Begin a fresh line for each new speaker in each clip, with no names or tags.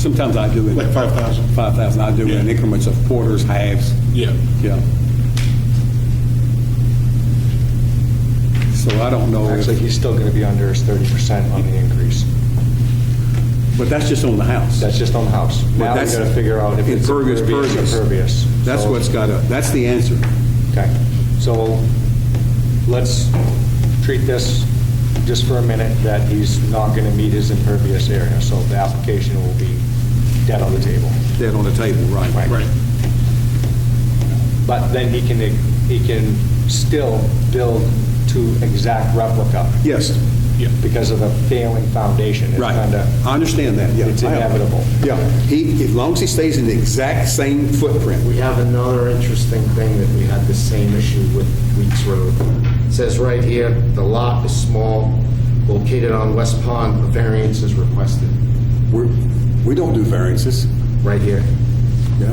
Sometimes I do it.
Like 5,000?
5,000, I do it in
Yeah.
increments of quarters, halves,
Yeah.
yeah. So I don't know,
Actually,
if-
he's still going to be under his 30% on the increase.
but that's just on the house.
That's just on the house. Now we
that's-
got to figure out if it's
Impervious,
impervious,
pervious.
impervious.
That's
So-
what's got to, that's the answer.
Okay, so let's treat this just for a minute, that he's not going to meet his impervious area, so the application will be dead on the table.
Dead on the table, right.
Right.
Right.
But then he can, he can still build to exact replica.
Yes,
Yeah.
Because of the failing foundation. It's
right.
kinda-
I understand that, yeah.
It's
I-
inevitable.
Yeah, he, as long as he stays in the exact same footprint.
We have another interesting thing that we had the same issue with Weeks Road. It Says right here, the lot is small, located on West Pond, a variance is requested,
We're, we don't do variances,
right here.
yeah.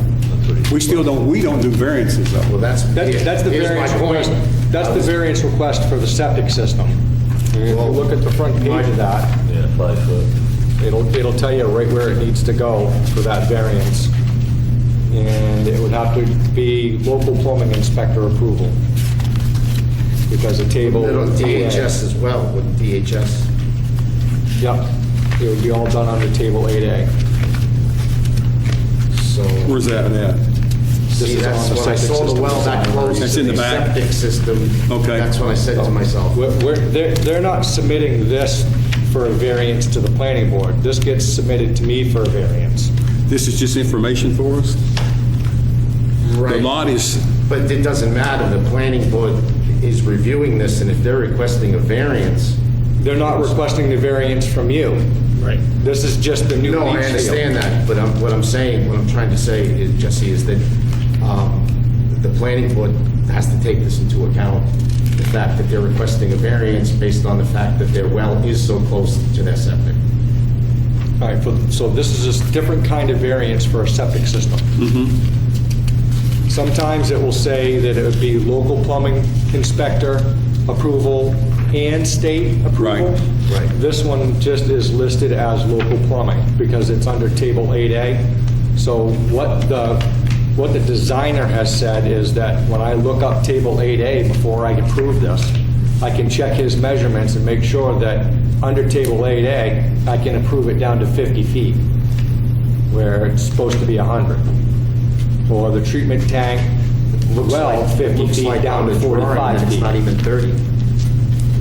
We still don't, we don't do variances, though.
Well, that's.
That's, that's the
here's my
variance
point.
request. That's
I
the
was-
variance request for the septic system. If you look at the front page of that,
Yeah, five foot.
It'll, it'll tell you right where it needs to go for that variance. And it would have to be local plumbing inspector approval. Because a table.
Put it on DHS as well, with DHS.
Yep. It would be all done under table 8A.
So,
Where's that at?
This
see,
is
that's
on the
when
septic
I saw the
system
well that
design.
close
That's
to
in the
the
back?
septic system.
Okay.
That's when I said to myself,
We're, we're- they're, they're not submitting this for a variance to the planning board. This gets submitted to me for a variance.
This is just information for us? The
right.
lot is,
But it doesn't matter, the planning board is reviewing this, and if they're requesting a variance,
They're not requesting the variance from you. Right. This is just the new leach
No,
field.
I understand that, but I'm, what I'm saying, what I'm trying to say, is, Jesse, is that um, the planning board has to take this into account, the fact that they're requesting a variance based on the fact that their well is so close to their septic.
All right, for- so this is a different kind of variance for a septic system. Sometimes it will say that it would be local plumbing inspector approval and state approval.
Right, right.
This one just is listed as local plumbing because it's under Table 8A. So what the, what the designer has said is that when I look up Table 8A before I approve this, I can check his measurements and make sure that under Table 8A, I can approve it down to 50 feet where it's supposed to be 100. Or the treatment tank,
Looks
well,
like-
50
looks like
feet down
on
to
the drawing
45
that It's not
feet.
even 30.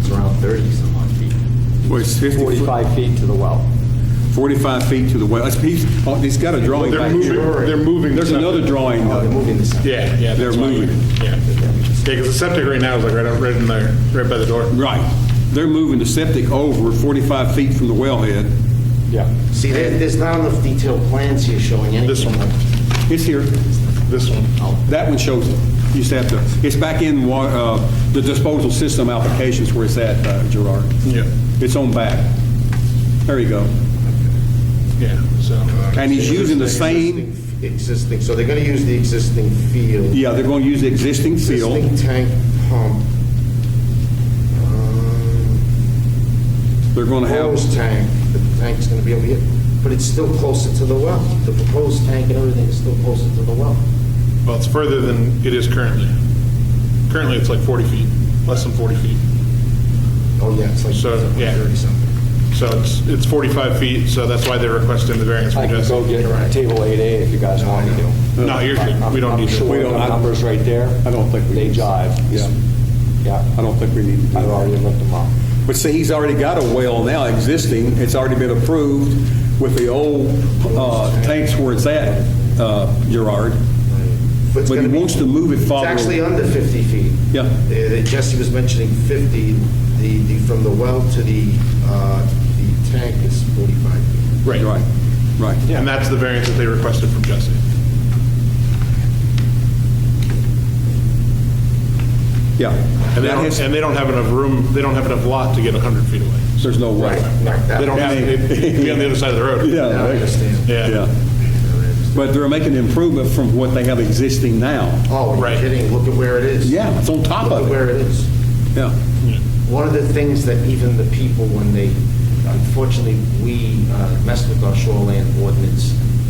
It's around 30 some odd feet.
well, it's 50 foot-
45 feet to the well.
45 feet to the west. He's, oh, he's got a drawing
They're
back
moving,
here.
they're moving.
There's
something.
another drawing. uh,
Oh, They're moving this.
Yeah, yeah.
They're
that's why you-
moving.
Yeah. Yeah, because the septic right now is like right out, right in there, right by the door.
Right. They're moving the septic over 45 feet from the wellhead.
Yeah.
See, there- there's not enough detailed plans here showing anything.
This one,
It's here.
this one.
That one shows it. You just have to, it's back in wa- uh, the disposal system applications where it's at, uh, Gerard.
Yeah.
It's on back. There you go.
Yeah, so. uh,
And he's using the same,
Existing- Existing, so they're going to use the existing field.
yeah, they're going to use the existing field.
Existing tank pump. Um,
They're going to have,
Proposed tank, the tank's gonna be over here, but it's still closer to the well. The proposed tank and everything is still closer to the well.
Well, it's further than it is currently. Currently, it's like 40 feet, less than 40 feet.
Oh, yeah, it's like
So, yeah.
30-something.
So it's, it's 45 feet, so that's why they're requesting the variance
I
from
can go
Jesse.
get table 8A if you guys want me to.
No, you're good. We don't need
I'm
to.
sure
We don't-
the
I-
numbers right there,
I don't think we.
they jive.
Yeah. I
Yeah,
don't think we need to do
I've already
that.
looked them up.
But see, he's already got a well now existing, it's already been approved with the old uh, tanks where it's at, uh, Gerard.
But it's
But he
gonna be-
wants to move it farther.
It's actually under 50 feet.
Yeah.
Uh, that Jesse was mentioning 50, the, the, from the well to the, uh, the tank is 45 feet.
Right.
Right, right.
And that's the variance that they requested from Jesse.
Yeah.
And they
That
don't,
has-
and they don't have enough room, they don't have enough lot to get 100 feet away.
There's no way.
They don't have, it'd be on the other side of the road.
Yeah.
Now I understand.
Yeah.
Yeah. But they're making an improvement from what they have existing now.
Oh, are
Right.
you kidding? Look at where it is.
Yeah, it's on top
Look
of it.
at where it is.
Yeah.
One of the things that even the people, when they
unfortunately, we uh, messed with our shoreline ordinance